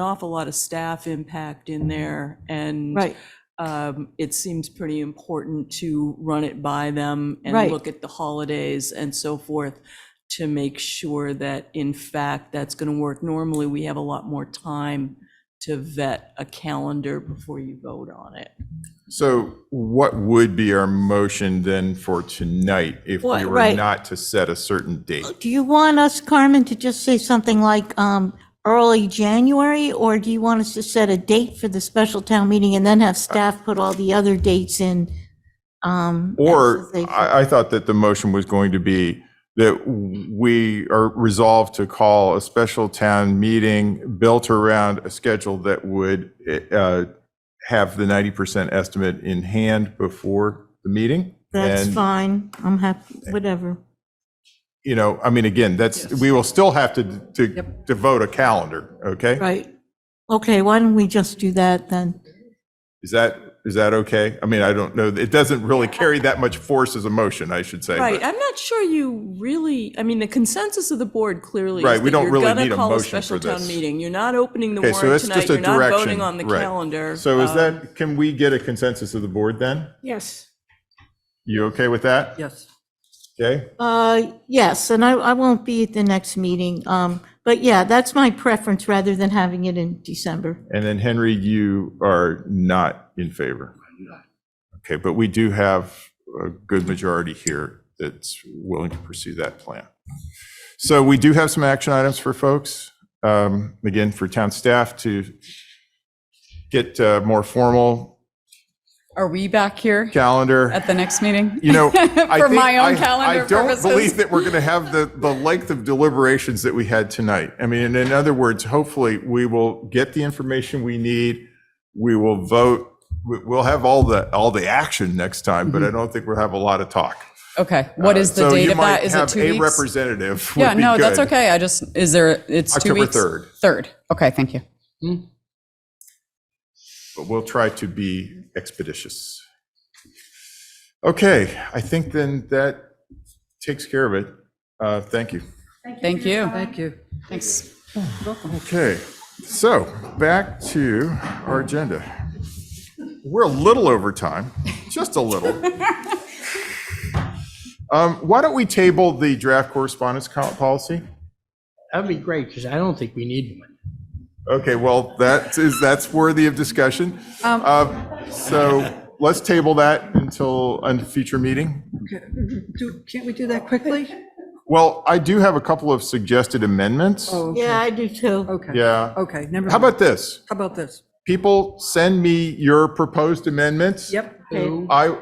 awful lot of staff impact in there, and Right, um, it seems pretty important to run it by them and Right. look at the holidays and so forth to make sure that, in fact, that's going to work. Normally, we have a lot more time to vet a calendar before you vote on it. So what would be our motion then for tonight if we Well, were right. not to set a certain date? do you want us, Carmen, to just say something like um, early January? Or do you want us to set a date for the special town meeting and then have staff put all the other dates in? um, as Or they- I, I thought that the motion was going to be that we are resolved to call a special town meeting built around a schedule that would uh, have the 90% estimate in hand before the meeting. That's And, fine, I'm happy, whatever. You know, I mean, again, that's, we will still have to, to devote a calendar, okay? Right. Okay, why don't we just do that then? Is that, is that okay? I mean, I don't know, it doesn't really carry that much force as a motion, I should say. but- Right, I'm not sure you really, I mean, the consensus of the board clearly Right, is we that don't you're really gonna need a call a motion special for town this. meeting. You're not opening the Okay, so warrant that's tonight, just a you're direction. not voting on the right. calendar. So is Um, that, can we get a consensus of the board then? Yes. You okay with that? Yes. Okay, Uh, Yes, and I, I won't be at the next meeting, um, but yeah, that's my preference rather than having it in December. and then Henry, you are not in favor? Okay, but we do have a good majority here that's willing to pursue that plan. So we do have some action items for folks, um, again, for town staff to get uh, more formal Are we back here calendar. at the next meeting? You know, I For think my I- own calendar I don't purposes? believe that we're going to have the, the length of deliberations that we had tonight. I mean, in- in other words, hopefully we will get the information we need. We will vote. We- We'll have all the, all the action next time, but I don't think we'll have a lot of talk. Uh, Okay, Mm-hmm. what is the So date you of that? might Is it have two A weeks? representative would Yeah, be no, that's good. okay. I just, is there, it's two October weeks? 3rd, 3rd. Okay, thank you. but we'll try to be expeditious. Okay, I think then that takes care of it. Uh, Thank you. Thank you. Thank you. Thanks. Okay, so back to our agenda. We're a little over time, just a little. Um, Why don't we table the draft correspondence co- policy? That'd be great, because I don't think we need one. Okay, well, that is, that's worthy of discussion. Um, So let's table that until a future meeting. Do- Can't we do that quickly? Well, I do have a couple of suggested amendments. Oh, Yeah, I do too. Okay. Yeah. Okay, never How mind. about this? How about this? People, send me your proposed amendments. Yep. I,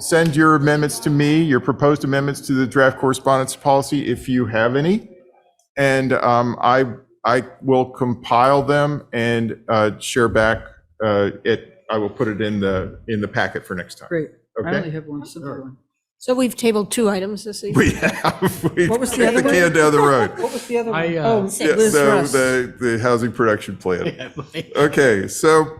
send your amendments to me, your proposed amendments to the draft correspondence policy, if you have any. And um, I, I will compile them and uh, share back, uh, it, I will put it in the, in the packet for next time. Great. I only Okay? have one simple one. So we've tabled two items this evening. We have, we What was the kicked other the one? can down the road. What was the other one? I, uh, Oh, Yeah, Liz So Russ. the, the housing production plan. It Okay, so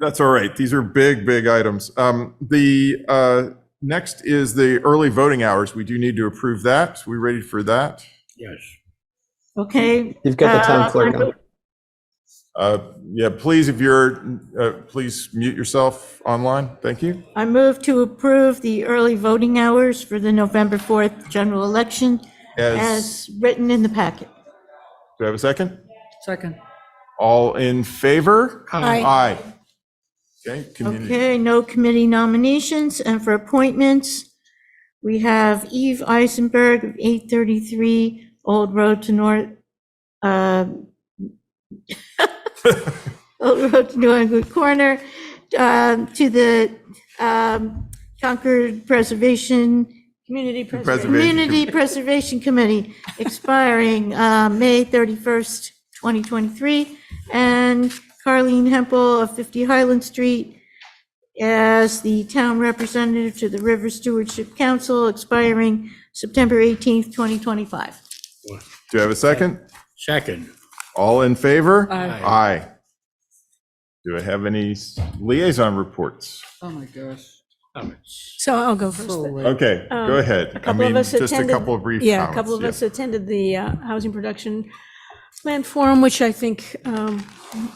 that's all right. These are big, big items. Um, The uh, next is the early voting hours. We do need to approve that. We ready for that? Okay. You've got the Uh, town clerk on. Uh, Yeah, please, if you're, uh, please mute yourself online. Thank you. I move to approve the early voting hours for the November 4th general election As, as written in the packet. do I have a second? Second. All in favor? Aye. Aye. Okay, community. Okay, no committee nominations, and for appointments, we have Eve Eisenberg of 833 Old Road to North, uh, Old Road to New England Corner, um, to the um, Concord Preservation, Community Preservation, Preservation Community Preservation Committee, expiring uh, May 31st, 2023, and Carleen Hempel of 50 Highland Street, as the town representative to the River Stewardship Council, expiring September 18th, 2025. Do I have a second? Second. All in favor? Aye. Aye. Do I have any liaison reports? Oh, my gosh. Um, So I'll go first. So then. late. Okay, go Um, ahead. A I couple mean, of us just a attended- couple of brief comments. Yeah, a couple of us attended the uh, Housing Production Land Forum, which I think um,